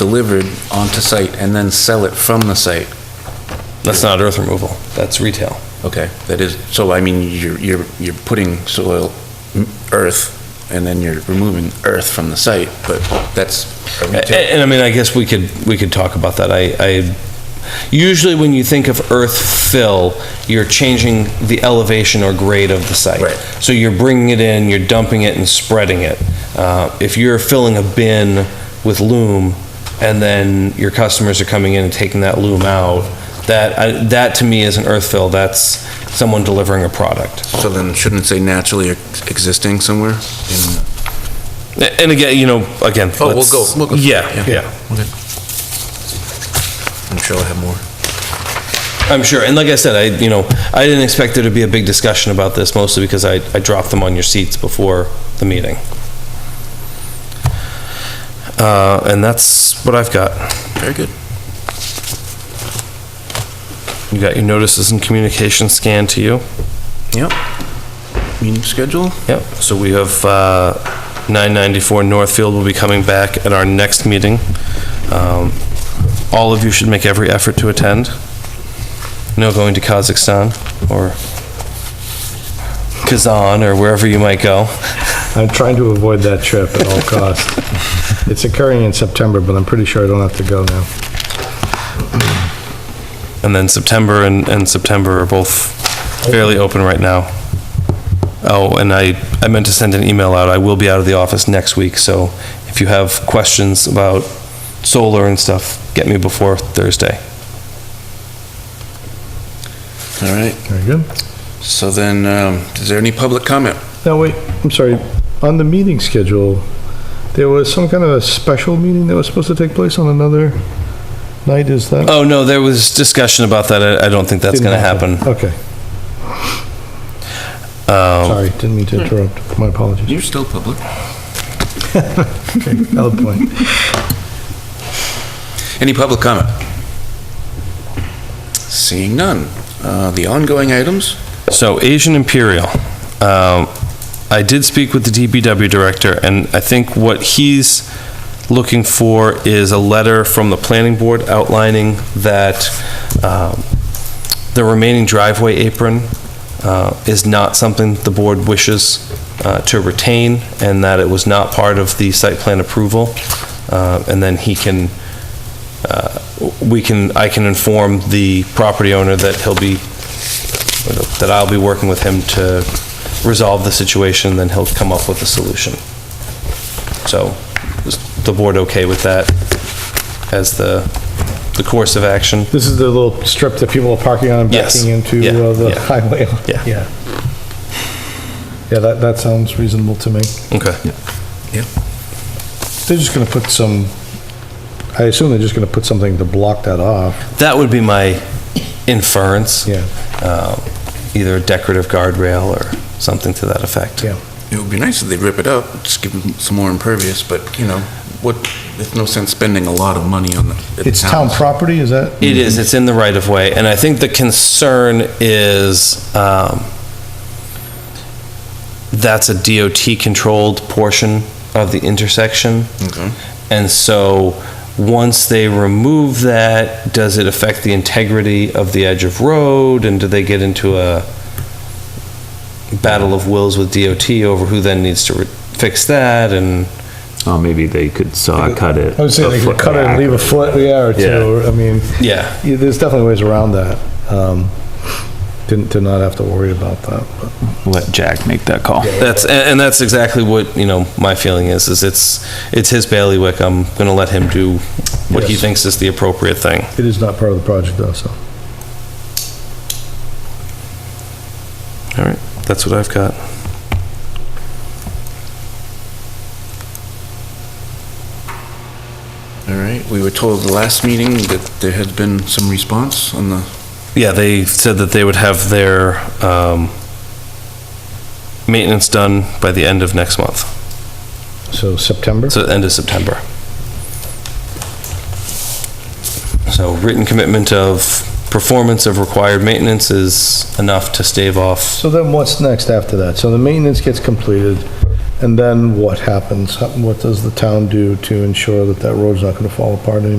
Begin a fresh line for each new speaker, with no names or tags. delivered onto site and then sell it from the site.
That's not earth removal, that's retail.
Okay, that is, so I mean, you're, you're, you're putting soil, m- earth, and then you're removing earth from the site, but that's a
A-
retail.
a- And I mean, I guess we could, we could talk about that. I, I, usually when you think of earth fill, you're changing the elevation or grade of the site.
Right.
So you're bringing it in, you're dumping it and spreading it. Uh, If you're filling a bin with loam and then your customers are coming in and taking that loam out, that, I- that to me is an earth fill, that's someone delivering a product.
So then shouldn't it say naturally ex- existing somewhere? in-
A- And again, you know, again.
Oh, we'll
let's-
go- we'll go-
Yeah,
yeah.
yeah.
I'm sure I'll have more.
I'm sure, and like I said, I, you know, I didn't expect there to be a big discussion about this, mostly because I, I dropped them on your seats before the meeting. Uh, and that's what I've got.
Very good.
You got your notices and communication scanned to you?
Yep. Meeting schedule?
Yep. So we have, uh, 994 Northfield will be coming back at our next meeting. Um, All of you should make every effort to attend. No going to Kazakhstan or Kazan or wherever you might go.
I'm trying to avoid that trip at all costs. It's occurring in September, but I'm pretty sure I don't have to go now.
And then September and, and September are both fairly open right now. Oh, and I, I meant to send an email out. I will be out of the office next week, so if you have questions about solar and stuff, get me before Thursday.
All right,
Very good.
so then, um, is there any public comment?
Now, wait, I'm sorry, on the meeting schedule, there was some kind of a special meeting that was supposed to take place on another night, is that?
Oh, no, there was discussion about that. I, I don't think that's
Didn't
gonna happen. Um,
Okay, sorry, didn't mean to interrupt, my apologies.
You're still public.
Valid point.
Any public comment? Seeing none. Uh, The ongoing items?
So Asian Imperial, um, I did speak with the DBW director, and I think what he's looking for is a letter from the planning board outlining that um, the remaining driveway apron uh, is not something the board wishes uh, to retain, and that it was not part of the site plan approval. Uh, And then he can, uh, we can, I can inform the property owner that he'll be that I'll be working with him to resolve the situation, then he'll come up with a solution. So, is the board okay with that as the, the course of action?
This is the little strip that people are parking on and
Yes.
backing into
Yeah,
uh, the
yeah.
highway.
Yeah.
Yeah, Yeah, that, that sounds reasonable to me.
Okay.
They're just gonna put some, I assume they're just gonna put something to block that off,
That would be my inference.
Yeah.
Uh, Either a decorative guardrail or something to that effect.
yeah.
It would be nice if they rip it up, just give them some more impervious, but, you know, what, there's no sense spending a lot of money on the. at the
It's town property, is that?
It is, it's in the right of way, and I think the concern is, um, that's a DOT-controlled portion of the intersection.
Okay.
And so, once they remove that, does it affect the integrity of the edge of road, and do they get into a battle of wills with DOT over who then needs to re- fix that, and,
Oh, maybe they could saw cut it.
I would say
a
they
foot
could cut it and
back.
leave a foot, yeah, or
Yeah.
two, I mean,
yeah.
yeah, there's definitely ways around that. Um, Didn't, to not have to worry about that. but-
Let Jack make that call.
That's, and and that's exactly what, you know, my feeling is, is it's, it's his bailiwick. I'm going to let him do what he
Yes.
thinks is the appropriate thing.
It is not part of the project though, so.
All right, that's what I've got.
All right, we were told the last meeting that there had been some response on the,
Yeah, they said that they would have their um, maintenance done by the end of next month,
So September?
so end of September. So written commitment of performance of required maintenance is enough to stave off.
So then what's next after that? So the maintenance gets completed, And then what happens? What does the town do to ensure that that road's not gonna fall apart anymore?